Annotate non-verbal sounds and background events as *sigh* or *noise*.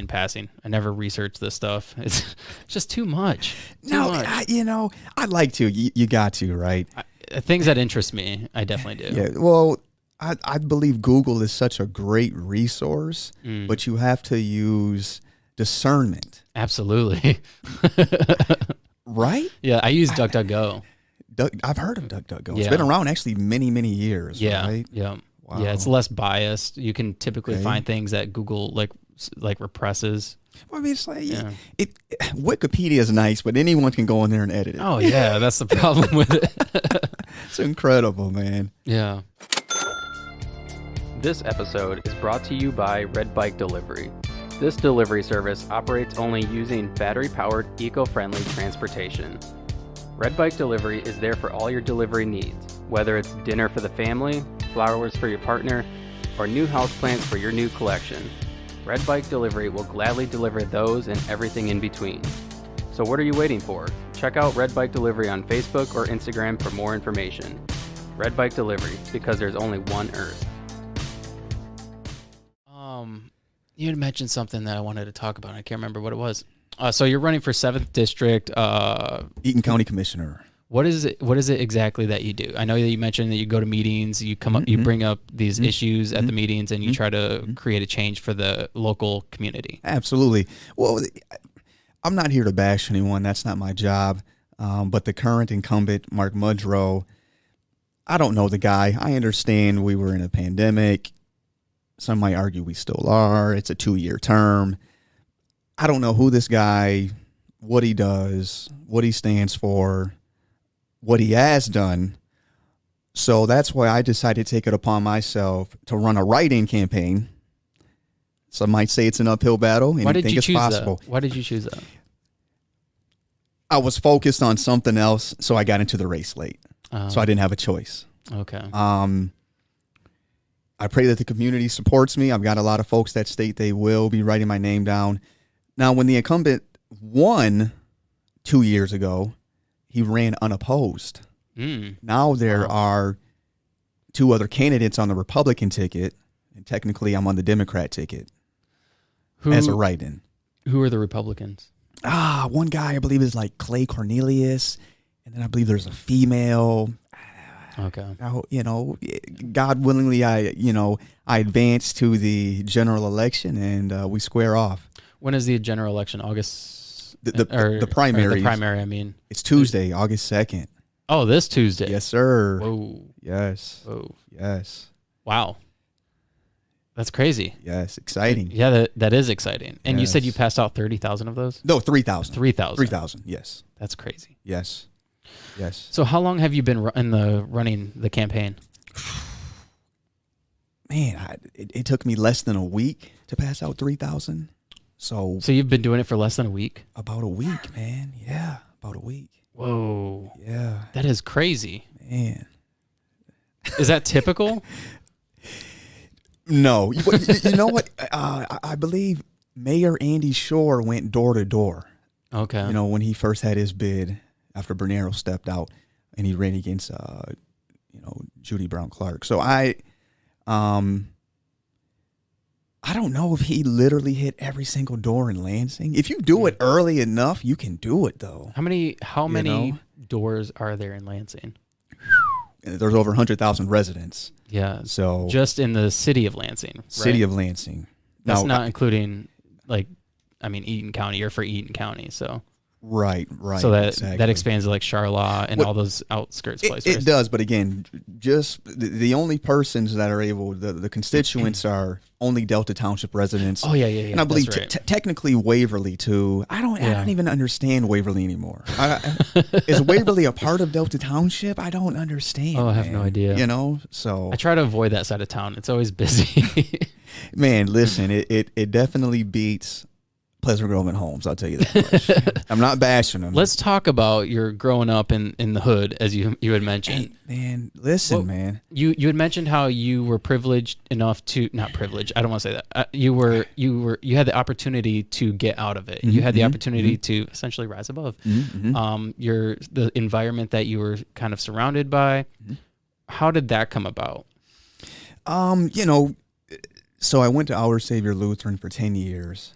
in passing. I never research this stuff. *laughs* It's just too much. Too No, much. I, you know, I like to. You, you got to, right? Uh, things that interest me, I definitely do. Yeah. Well, I, I believe Google is such a great resource, Mm. but you have to use discernment, Absolutely. *laughs* right? yeah, I use *laughs* DuckDuckGo. Duck, I've heard of DuckDuckGo. It's Yeah. been around actually many, many years, Yeah. right? Yeah. Yeah, it's less biased. You can typically Okay. find things that Google like s- like represses. Well, I mean, it's like Yeah. it, Wikipedia is nice, but anyone can go in there and edit it. Oh yeah, that's the problem with it. *laughs* It's incredible, man. Yeah. This episode is brought to you by Red Bike Delivery. This delivery service operates only using battery powered, eco friendly transportation. Red Bike Delivery is there for all your delivery needs, whether it's dinner for the family, flowers for your partner, or new houseplants for your new collection. Red Bike Delivery will gladly deliver those and everything in between. So, what are you waiting for? Check out Red Bike Delivery on Facebook or Instagram for more information. Red Bike Delivery, because there's only one Earth. Um, you had mentioned something that I wanted to talk about. I can't remember what it was. Uh, so you're running for seventh district. Uh, Eaton County Commissioner. what is it? What is it exactly that you do? I know that you mentioned that you go to meetings, you come up, Mm-hmm. you bring up these issues at the meetings, and you try to create a change for the local community. Absolutely. Well, I'm not here to bash anyone. That's not my job. Um, but the current incumbent, Mark Mudrow, I don't know the guy. I understand we were in a pandemic. Some might argue we still are. It's a two year term. I don't know who this guy, what he does, what he stands for, what he has done. So that's why I decided to take it upon myself to run a write in campaign. Some might say it's an uphill battle, and Why you did think you it's choose possible. that? Why did you choose that? I was focused on something else, so I got into the race late. Um, So I didn't have a choice. okay. Um, I pray that the community supports me. I've got a lot of folks that state they will be writing my name down. Now, when the incumbent won two years ago, he ran unopposed. Mm, Now there are two other candidates on the Republican ticket, and technically I'm on the Democrat ticket who as a write-in. who are the Republicans? ah, one guy I believe is like Clay Cornelius, and then I believe there's a female. Okay. Now, you know, God willingly, I you know I advance to the general election and uh, we square off. When is the general election? August. The- the- or- the or primaries. the primary. I mean. It's Tuesday, August second. Oh, this Tuesday. Yes, sir. Whoa. Yes, Whoa. yes, Wow. That's crazy. yes. Exciting. Yeah, that, that is exciting. And you said you Yes. passed out 30,000 of those? No, three thousand. 3,000. Three thousand. Yes, That's crazy. yes, yes. So how long have you been ru- in the running the campaign? Man, I, it, it took me less than a week to pass out three thousand. So So you've been doing it for less than a week? about a week, man. Yeah, about a week. Whoa. Yeah, That is crazy. man. Is that *laughs* typical? No, you, *laughs* but you- you know what? Uh, I- I believe Mayor Andy Shore went door to door. Okay. You know, when he first had his bid after Bernero stepped out, and he ran against, uh, you know, Judy Brown Clark. So I, um, I don't know if he literally hit every single door in Lansing. If you do it early enough, you can do it though. how many how You many know? doors are there in Lansing? There's over hundred thousand residents, Yeah. so Just in the city of Lansing. Right? city of Lansing. That's Now, not including like I mean Eaton County, you're for Eaton County, so right, right. so that that exactly. expands to like Charlotte and Well, all those outskirts It, places. it does, but again, just the, the only persons that are able, the, *clears throat* the constituents are only Delta Township residents. Oh yeah, yeah, yeah. and I believe that's te- right. te- technically Waverly too. I don't, I Yeah. don't even understand Waverly anymore. I, I- is Waverly a part of Delta Township? I don't understand. Oh, I have no man. idea. You know, so *laughs* I try to avoid that side of town. It's always busy. *laughs* Mm. man, listen, it, it it definitely beats Pleasant Grove and Holmes. I'll tell you that. *laughs* much. I'm not bashing them. Let's talk about your growing up in, in the hood, as you you had mentioned. Hey, man, listen, Well- man. You you had mentioned how you were privileged enough to not privileged. I don't want to say that. Uh, you were you were you had the opportunity to get out of it. Mm-hmm, you had the opportunity to essentially rise above. Um, your the environment that you were kind of surrounded by. How did that come about? Um, you know, so I went to Our Savior Lutheran for 10 years.